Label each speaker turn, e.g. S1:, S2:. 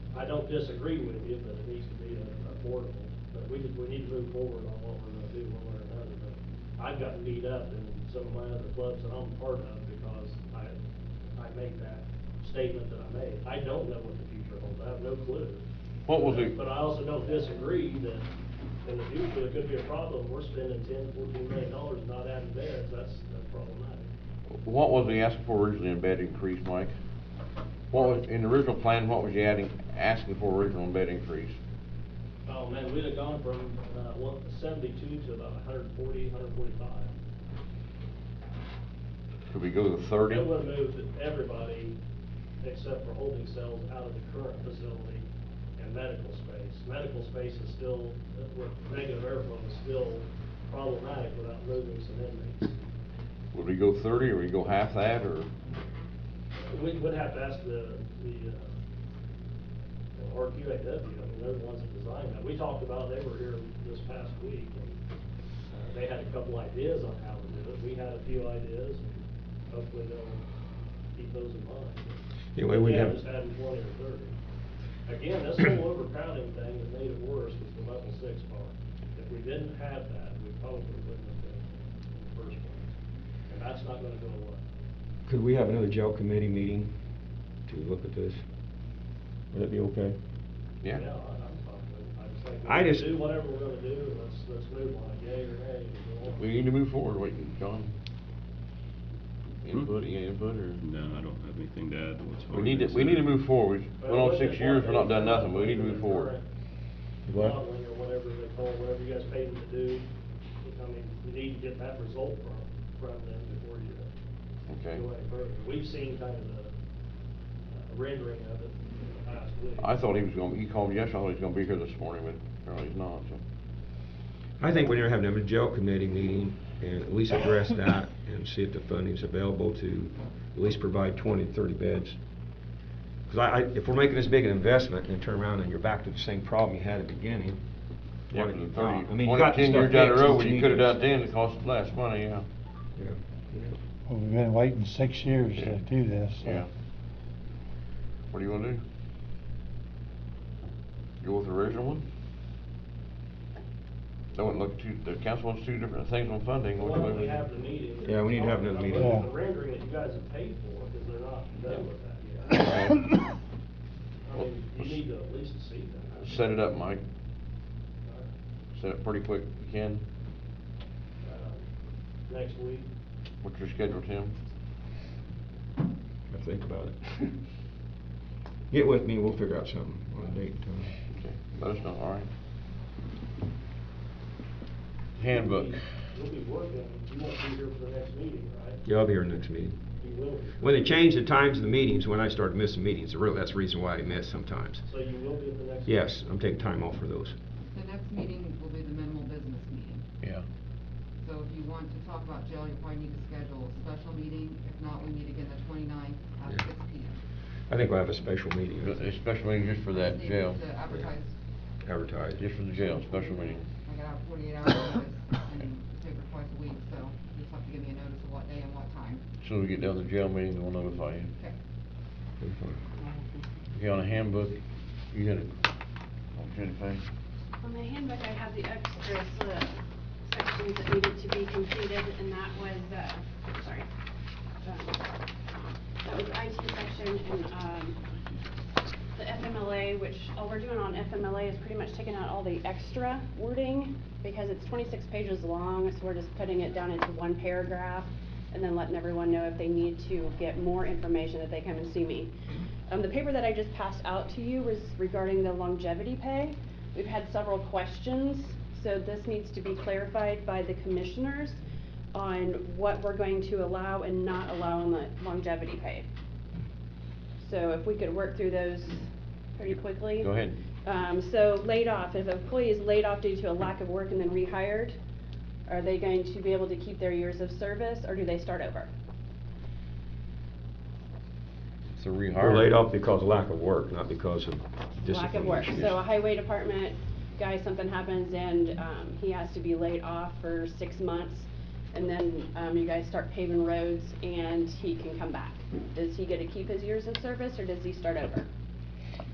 S1: I don't disagree with you, but it needs to be affordable, but we just, we need to move forward on what we're gonna do one way or another, but I've gotten beat up in some of my other clubs that I'm part of because I, I made that statement that I made. I don't know what the future holds, I have no clue.
S2: What was it?
S1: But I also don't disagree that in the future, it could be a problem, we're spending ten, fourteen million dollars not adding beds, that's, that's problematic.
S2: What was he asking for originally in bed increase, Mike? What was, in the original plan, what was you adding, asking for original in bed increase?
S1: Oh, man, we'd have gone from, uh, one, seventy-two to about hundred and forty, hundred and forty-five.
S2: Could we go to thirty?
S1: It would have moved everybody except for holding cells out of the current facility and medical space. Medical space is still, with negative airflow is still problematic without moving some inmates.
S2: Would we go thirty, or we go half that, or?
S1: We would have to ask the, the, uh, RQAW, I mean, they're the ones that designed that. We talked about, they were here this past week, and uh, they had a couple ideas on how to do it. We had a few ideas, and hopefully they'll keep those in mind.
S3: Anyway, we
S1: Again,
S3: have-
S1: Just adding twenty or thirty. Again, this whole overcrowding thing that made it worse was the level six part. If we didn't have that, we probably wouldn't have been in the first place. And that's not gonna go away.
S3: Could we have another jail committee meeting to look at this? Would that be okay?
S1: I-
S2: Yeah.
S1: I'm fine with it. I just think
S3: I
S1: we're gonna
S3: just-
S1: Do whatever we're gonna do, and let's, let's move on, yay or nay. and go on.
S2: We need to move forward, wait, John? Input, yeah, input, or?
S4: No, I don't have anything to add to what's
S2: We
S4: already
S2: need to,
S4: been
S2: we need to
S4: said.
S2: move forward, we've
S1: But
S2: been on
S1: look
S2: six
S1: at
S2: years,
S1: what
S2: we're not
S1: they-
S2: done nothing, we need to move forward.
S3: What?
S1: uh, Modeling or whatever they call, it, whatever you guys paid them to do, I mean, you need to get that result from, from them before you
S2: Okay.
S1: go any further. We've seen kind of the uh, rendering of it in the past week.
S2: I thought he was gonna, he called me yesterday, I thought he was gonna be here this morning, but apparently he's not, so.
S3: I think we need to have another jail committee meeting and at least address that and see if the funding's available to at least provide 20 to 30 beds. Because I, I- if we're making this big an investment and then turn around and you're back to the same problem you had at the beginning.
S2: Yeah,
S3: why
S2: but
S3: did
S2: in
S3: you
S2: thirty,
S3: not? I mean, you
S2: twenty,
S3: got the
S2: ten
S3: stuff
S2: years down the
S3: fixed,
S2: road,
S3: it's
S2: when you
S3: needed.
S2: could've done it then, it cost less money, yeah,
S3: Yeah, yeah.
S5: Well, we've been waiting six years
S2: Yeah.
S5: to do this. so-
S2: yeah. What do you wanna do? Go with the original one? That wouldn't look too, the council wants two different things on funding,
S1: Why
S2: what do
S1: don't
S2: we?
S1: we have the meeting?
S3: Yeah, we need to have another
S1: I'm
S3: meeting.
S1: looking at
S5: Yeah.
S1: The rendering that you guys have paid for, because they're not done with that yet.
S2: Uh,
S1: I mean, you need to at least see that.
S2: Set it up, Mike, set it pretty quick, if you can,
S1: Uh, Next week,
S2: what's your schedule, Tim?
S3: I think about it. Get with me, we'll figure out something on a date and time.
S2: Okay, let us know, all right? Handbook.
S1: You'll be working, you won't be here for the next meeting, right?
S3: Yeah, I'll be here next meeting.
S1: You will, be.
S3: When they changed the times of the meetings, when I started missing meetings, the real- that's the reason why I miss sometimes.
S1: so you will be at the next.
S3: Yes, I'm taking time off for those.
S6: The next meeting will be the minimal business meeting.
S2: Yeah.
S6: So if you want to talk about jail, you probably need to schedule a special meeting. If not, we meet again the 29th at
S3: Yeah.
S6: six P M.
S3: I think we'll have a special meeting. I think.
S2: Special meeting just for that jail,
S6: To advertise,
S3: advertised.
S2: just for the jail, special meeting.
S6: I got out forty-eight hours notice and take her twice a week, so you just have to give me a notice of what day and what time.
S2: As Soon as we get down to the jail meeting, we'll notify you.
S6: Okay.
S2: Okay, on the handbook, you had a, on Jennifer,
S7: On the handbook, I have the extras, uh, sections that needed to be completed, and that was, uh, sorry. Um, That was IT section and, um, the FMLA, which, all we're doing on FMLA is pretty much taking out all the extra wording, because it's twenty-six pages long, so we're just putting it down into one paragraph, and then letting everyone know if they need to get more information, that they come and see me. Um, the paper that I just passed out to you was regarding the longevity pay. We've had several questions, so this needs to be clarified by the commissioners on what we're going to allow and not allow in the longevity pay. So if we could work through those pretty quickly.
S2: go ahead.
S7: Um, so laid off, if an employee is laid off due to a lack of work and then rehired, are they going to be able to keep their years of service, or do they start over?
S2: It's a rehire.
S3: We're laid off because of lack of work, not because of
S7: lack of
S3: discipline
S7: work.
S3: issues.
S7: So a highway department guy, something happens and, um, he has to be laid off for six months. And then, um, you guys start paving roads and he can come back. Does he get to keep his years of service or does he start over?